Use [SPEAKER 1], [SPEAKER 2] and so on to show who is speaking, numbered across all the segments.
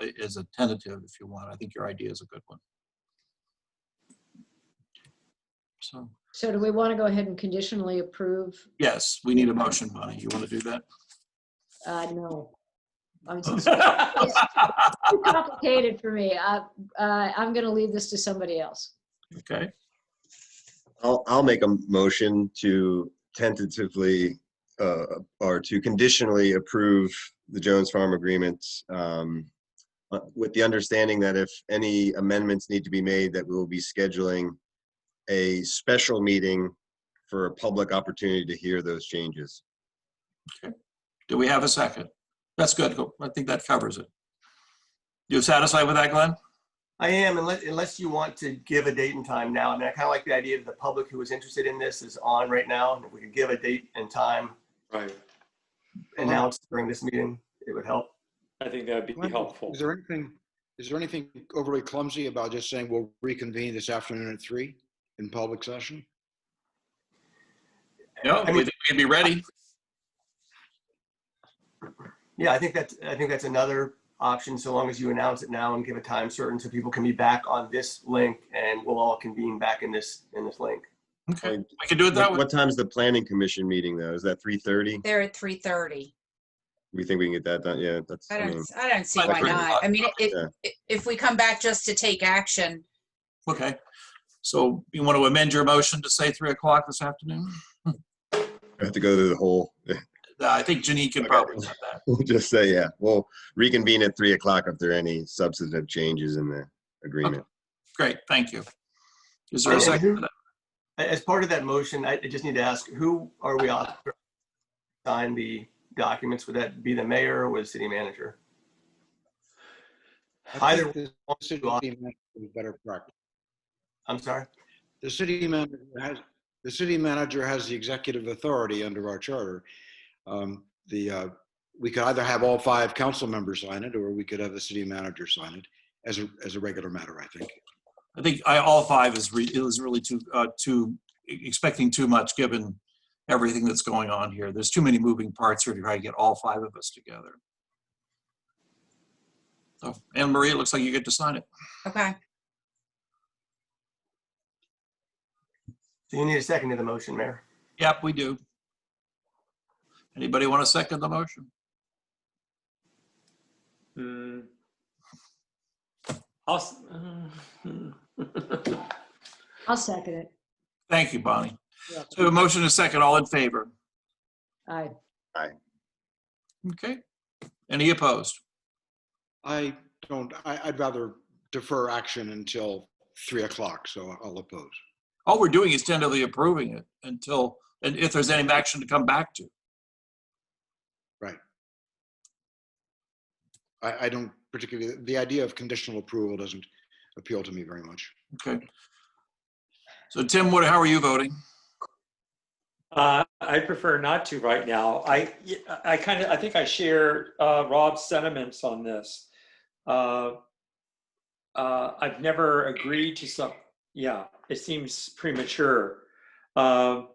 [SPEAKER 1] is a tentative if you want. I think your idea is a good one. So,
[SPEAKER 2] So do we want to go ahead and conditionally approve?
[SPEAKER 1] yes, we need a motion, Bonnie. You want to do that?
[SPEAKER 2] Uh, no. I'm so sorry. It's Too complicated for me. I, uh, I'm going to leave this to somebody else.
[SPEAKER 1] Okay,
[SPEAKER 3] I'll, I'll make a motion to tentatively, uh, or to conditionally approve the Jones Farm agreement, um, uh, with the understanding that if any amendments need to be made, that we will be scheduling a special meeting for a public opportunity to hear those changes.
[SPEAKER 1] do we have a second? That's good. Go- I think that covers it. You satisfied with that, Glenn?
[SPEAKER 4] I am, unless, unless you want to give a date and time now. I mean, I kind of like the idea that the public who is interested in this is on right now. And if we could give a date and time
[SPEAKER 5] Uh-huh.
[SPEAKER 6] Right.
[SPEAKER 4] announced during this meeting, it would help.
[SPEAKER 6] I think that would be helpful.
[SPEAKER 5] Is there anything, is there anything overly clumsy about just saying we'll reconvene this afternoon at three in public session?
[SPEAKER 1] No,
[SPEAKER 4] I mean-
[SPEAKER 1] we think we'd be ready.
[SPEAKER 4] Yeah, I think that's, I think that's another option, so long as you announce it now and give a time certain so people can be back on this link and we'll all convene back in this, in this link.
[SPEAKER 1] Okay, we can do it that
[SPEAKER 3] What
[SPEAKER 1] way.
[SPEAKER 3] what time's the planning commission meeting though? Is that 3:30?
[SPEAKER 7] They're at three thirty.
[SPEAKER 3] We think we can get that done? Yeah, that's.
[SPEAKER 7] I
[SPEAKER 3] I mean,
[SPEAKER 7] don't, I don't see
[SPEAKER 1] But
[SPEAKER 7] why
[SPEAKER 1] we're
[SPEAKER 7] not. I mean, it,
[SPEAKER 3] yeah.
[SPEAKER 7] i- if we come back just to take action,
[SPEAKER 1] Okay. So you want to amend your motion to say 3 o'clock this afternoon?
[SPEAKER 3] I have to go through the whole,
[SPEAKER 1] I think Janine can probably do that.
[SPEAKER 3] we'll just say, yeah, we'll reconvene at 3 o'clock if there are any substantive changes in the agreement.
[SPEAKER 1] Great, thank you. Is there a second? for that?
[SPEAKER 4] A- As part of that motion, I I just need to ask, who are we on? Sign the documents, would that be the mayor or would the city manager?
[SPEAKER 5] I think
[SPEAKER 4] Either-
[SPEAKER 5] The city manager is better practice.
[SPEAKER 4] I'm sorry?
[SPEAKER 5] The city manager has, the city manager has the executive authority under our charter. Um, The, uh, we could either have all five council members sign it, or we could have the city manager sign it as a, as a regular matter, I think.
[SPEAKER 1] I think I, all five is re, it was really too, uh, too, e- expecting too much given everything that's going on here. There's too many moving parts here to try to get all five of us together. So, Anne Marie, it looks like you get to sign it.
[SPEAKER 7] okay,
[SPEAKER 4] So you need a second to the motion, Mayor.
[SPEAKER 1] Yep, we do. Anybody want to second the motion?
[SPEAKER 6] Hmm. I'll, s- uh,
[SPEAKER 2] I'll second it.
[SPEAKER 1] Thank you, Bonnie.
[SPEAKER 2] Yeah.
[SPEAKER 1] So a motion is second, all in favor?
[SPEAKER 2] Aye.
[SPEAKER 1] Okay. Any opposed?
[SPEAKER 5] I don't, I, I'd rather defer action until three o'clock, so I'll oppose.
[SPEAKER 1] All we're doing is tentatively approving it until, and if there's any action to come back to.
[SPEAKER 5] I, I don't particularly, the idea of conditional approval doesn't appeal to me very much.
[SPEAKER 1] Okay. So Tim, what, how are you voting?
[SPEAKER 6] Uh, I prefer not to right now. I, I kind of, I think I share uh, Rob's sentiments on this. Uh, uh, I've never agreed to some, yeah, it seems premature. Um,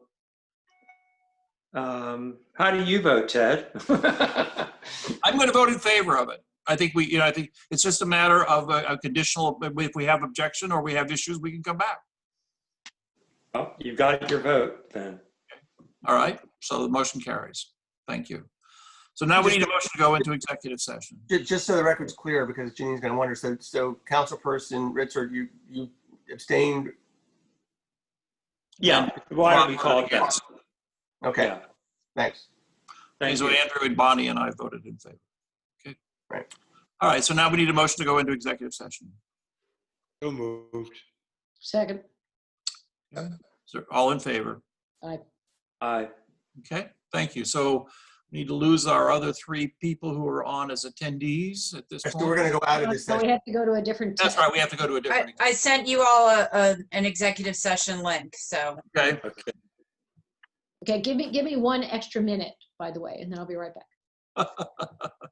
[SPEAKER 6] um, How do you vote, Ted?
[SPEAKER 1] I'm going to vote in favor of it. I think we, you know, I think it's just a matter of a a conditional, if we have objection or we have issues, we can come back.
[SPEAKER 6] Well, You've got your vote then.
[SPEAKER 1] All right? So the motion carries. Thank you. So now we need a motion to go into executive session.
[SPEAKER 4] Ju- Just so the record's clear, because Jeannie's going to wonder, so, so Councilperson Richard, you, you abstained?
[SPEAKER 6] Yeah, why don't we call it that?
[SPEAKER 1] Yes.
[SPEAKER 4] Okay,
[SPEAKER 6] Yeah,
[SPEAKER 4] thanks.
[SPEAKER 6] Thank
[SPEAKER 1] So
[SPEAKER 6] you.
[SPEAKER 1] Andrew and Bonnie and I voted in favor. Okay.
[SPEAKER 4] Right.
[SPEAKER 1] All right, so now we need a motion to go into executive session.
[SPEAKER 5] So moved.
[SPEAKER 2] Second.
[SPEAKER 1] So all in favor?
[SPEAKER 6] Aye.
[SPEAKER 1] Okay, thank you. So we need to lose our other three people who are on as attendees at this
[SPEAKER 4] So
[SPEAKER 1] point.
[SPEAKER 4] we're going to go out of this
[SPEAKER 2] So Oh, we
[SPEAKER 4] session.
[SPEAKER 2] have to go to a different.
[SPEAKER 1] That's right, we have to go to a
[SPEAKER 7] I,
[SPEAKER 1] different,
[SPEAKER 7] I sent you all a, a, an executive session link, so.
[SPEAKER 1] okay?
[SPEAKER 2] Okay, give me, give me one extra minute, by the way, and then I'll be right back.